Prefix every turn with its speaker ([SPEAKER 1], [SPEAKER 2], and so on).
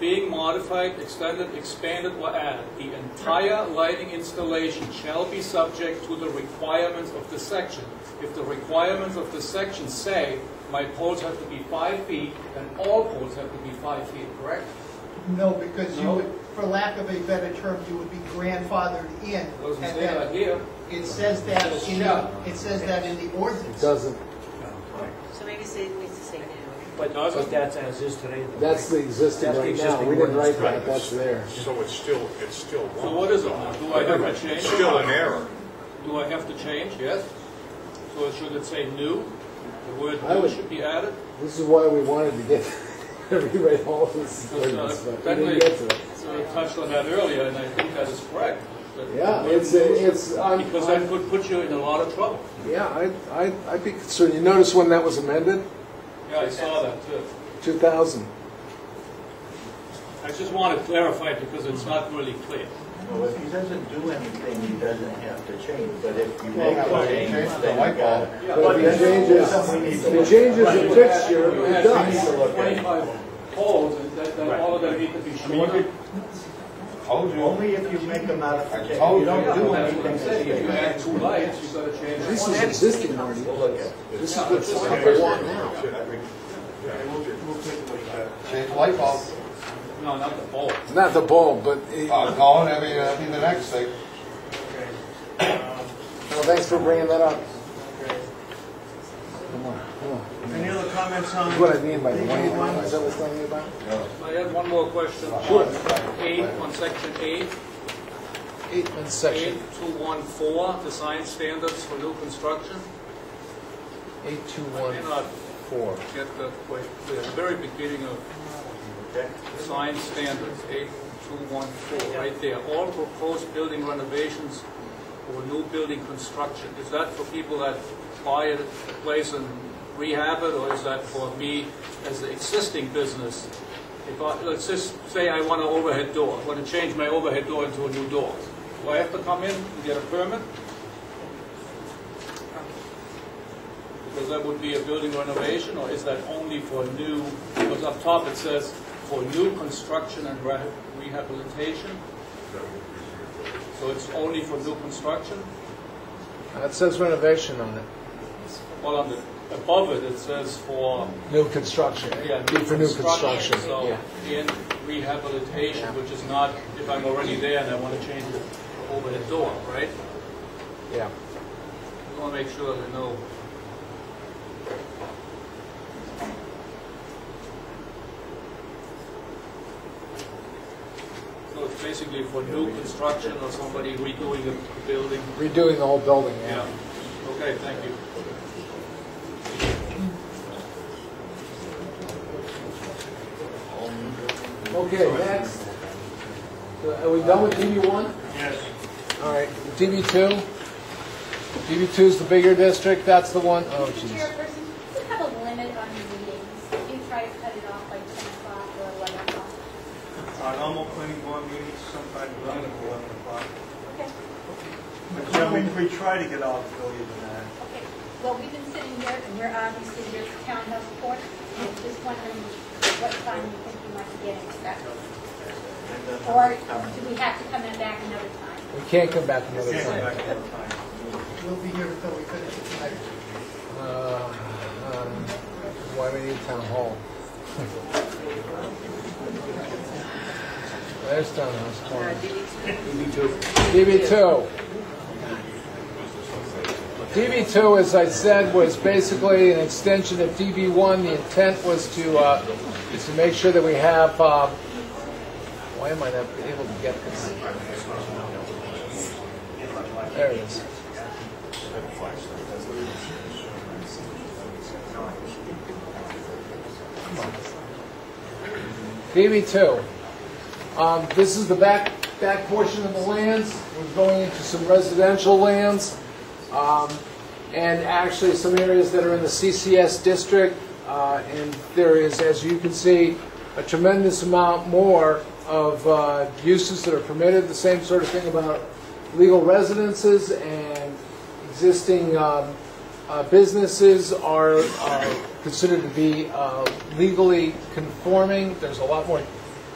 [SPEAKER 1] being modified, extended, expanded, or added, the entire lighting installation shall be subject to the requirements of this section. If the requirements of this section say my poles have to be five feet, then all poles have to be five feet, correct?
[SPEAKER 2] No, because you
[SPEAKER 1] No.
[SPEAKER 2] would, for lack of a better term, you would be grandfathered in.
[SPEAKER 1] Doesn't
[SPEAKER 2] And
[SPEAKER 1] say
[SPEAKER 2] that-
[SPEAKER 1] that here.
[SPEAKER 2] It says that in, the-
[SPEAKER 1] Shall.
[SPEAKER 2] it says that in the ordinance.
[SPEAKER 3] It doesn't,
[SPEAKER 4] So maybe say, it needs to say now.
[SPEAKER 5] But
[SPEAKER 1] Doesn't-
[SPEAKER 5] but that's as is today. though,
[SPEAKER 3] that's the
[SPEAKER 5] right?
[SPEAKER 3] existing
[SPEAKER 5] That's the
[SPEAKER 3] right now,
[SPEAKER 5] existing
[SPEAKER 3] we didn't write
[SPEAKER 5] ordinance.
[SPEAKER 3] that, that's there.
[SPEAKER 6] So it's still, it's still wrong.
[SPEAKER 1] So what is it now? Do I have to change?
[SPEAKER 6] It's still an error.
[SPEAKER 1] Do I have to change? Yes. So should it say new? The word
[SPEAKER 3] I
[SPEAKER 1] new
[SPEAKER 3] would-
[SPEAKER 1] should be added?
[SPEAKER 3] This is why we wanted to get, rewrite all of this ordinance,
[SPEAKER 1] Because, uh,
[SPEAKER 3] but we
[SPEAKER 1] Bentley
[SPEAKER 3] didn't get to it.
[SPEAKER 1] uh, touched on that earlier, and I think that is correct. that the
[SPEAKER 3] Yeah,
[SPEAKER 1] word
[SPEAKER 3] it's,
[SPEAKER 1] new-
[SPEAKER 3] it's, I'm,
[SPEAKER 1] Because that could put you in a lot of trouble.
[SPEAKER 3] yeah, I, I, I'd be concerned, you notice when that was amended,
[SPEAKER 1] Yeah, I saw that too.
[SPEAKER 3] two thousand?
[SPEAKER 1] I just want to clarify because it's not really clear.
[SPEAKER 7] Well, if he doesn't do anything, he doesn't have to change, but if you
[SPEAKER 8] Well,
[SPEAKER 7] make a
[SPEAKER 8] well,
[SPEAKER 7] change,
[SPEAKER 8] change the
[SPEAKER 7] then
[SPEAKER 8] light
[SPEAKER 7] you got
[SPEAKER 8] bulb.
[SPEAKER 7] it.
[SPEAKER 3] But if it changes, if it changes the
[SPEAKER 1] You
[SPEAKER 3] fixture, it
[SPEAKER 1] had
[SPEAKER 3] does.
[SPEAKER 1] Twenty-five poles, and that, that all of them need to be
[SPEAKER 8] I mean, you
[SPEAKER 1] shorter.
[SPEAKER 8] could, told you,
[SPEAKER 7] Only if you make a modification,
[SPEAKER 8] told
[SPEAKER 7] Oh, you
[SPEAKER 8] you.
[SPEAKER 7] don't
[SPEAKER 1] Yeah,
[SPEAKER 7] do
[SPEAKER 1] that's what
[SPEAKER 7] anything.
[SPEAKER 1] I'm
[SPEAKER 7] to
[SPEAKER 1] saying. If you
[SPEAKER 7] stay.
[SPEAKER 1] add two lights, you gotta change.
[SPEAKER 3] This
[SPEAKER 1] one.
[SPEAKER 3] is existing already,
[SPEAKER 7] We'll look at it.
[SPEAKER 3] this is
[SPEAKER 1] Yeah,
[SPEAKER 3] what's
[SPEAKER 1] this is-
[SPEAKER 3] what we want now.
[SPEAKER 8] change the light bulb,
[SPEAKER 1] No, not the pole.
[SPEAKER 3] Not the bulb, but, it-
[SPEAKER 8] uh, Colin, I mean, that'd be the next thing.
[SPEAKER 3] well, Oh, thanks for bringing that up.
[SPEAKER 7] Any other comments on?
[SPEAKER 3] That's what I mean by the wave, is that what's telling you about?
[SPEAKER 1] I have one more question.
[SPEAKER 3] Sure.
[SPEAKER 1] On Eight, on section eight.
[SPEAKER 3] Eight, one section,
[SPEAKER 1] 8214, design standards for new construction.
[SPEAKER 3] eight, two,
[SPEAKER 1] I
[SPEAKER 3] one,
[SPEAKER 1] cannot
[SPEAKER 3] four.
[SPEAKER 1] get the, quite clear. the very beginning of design standards, 8214, right there. All proposed building renovations or new building construction, is that for people that buy a a place and rehab it, or is that for me as the existing business? If I, let's just say I want an overhead door, I want to change my overhead door into a new door. Do I have to come in and get a permit? Because that would be a building renovation, or is that only for new, because up top it says for new construction and re- rehabilitation? So it's only for new construction?
[SPEAKER 3] It says renovation on it.
[SPEAKER 1] Well, on the, above it, it says for,
[SPEAKER 3] New construction.
[SPEAKER 1] yeah,
[SPEAKER 3] Be For new construction.
[SPEAKER 1] So in rehabilitation, which is not, if I'm already there and I want to change it over the door, right?
[SPEAKER 3] Yeah.
[SPEAKER 1] I want to make sure that I know. So it's basically for new construction or somebody redoing the building?
[SPEAKER 3] Redoing the whole building,
[SPEAKER 1] Yeah.
[SPEAKER 3] yeah.
[SPEAKER 1] Okay, thank you.
[SPEAKER 3] Okay, next. So Are we done with DB one? Yes. All right, DB two? DB two is the bigger district, that's the one, oh jeez.
[SPEAKER 9] Chairperson, you have a limit on your meetings. You try to cut it off by 10 o'clock or 11 o'clock.
[SPEAKER 10] Our normal planning board meetings sometime around eleven o'clock.
[SPEAKER 9] Okay,
[SPEAKER 10] But yeah, we, we try to get out earlier than that.
[SPEAKER 9] okay. Well, we've been sitting here, and we're obviously, there's a townhouse court. I'm just wondering what time you think you might be getting back. Or do we have to come in back another time?
[SPEAKER 3] We can't come back another
[SPEAKER 10] Can't go
[SPEAKER 3] time.
[SPEAKER 10] back to the time.
[SPEAKER 2] We'll be here until we finish it tonight.
[SPEAKER 3] Uh, um, Why we need town hall? There's town
[SPEAKER 4] Uh,
[SPEAKER 3] hall.
[SPEAKER 4] did you-
[SPEAKER 3] DB2. DB2, as I said, was basically an extension of DB1. The intent was to, uh, is to make sure that we have, uh, why am I not able to get this? There it is. DB2. Um, This is the back, back portion of the lands. We're going into some residential lands. um, And actually, some areas that are in the CCS district. Uh, And there is, as you can see, a tremendous amount more of uh, uses that are permitted. The same sort of thing about legal residences and existing um, uh, businesses are uh, considered to be uh, legally conforming. There's a lot more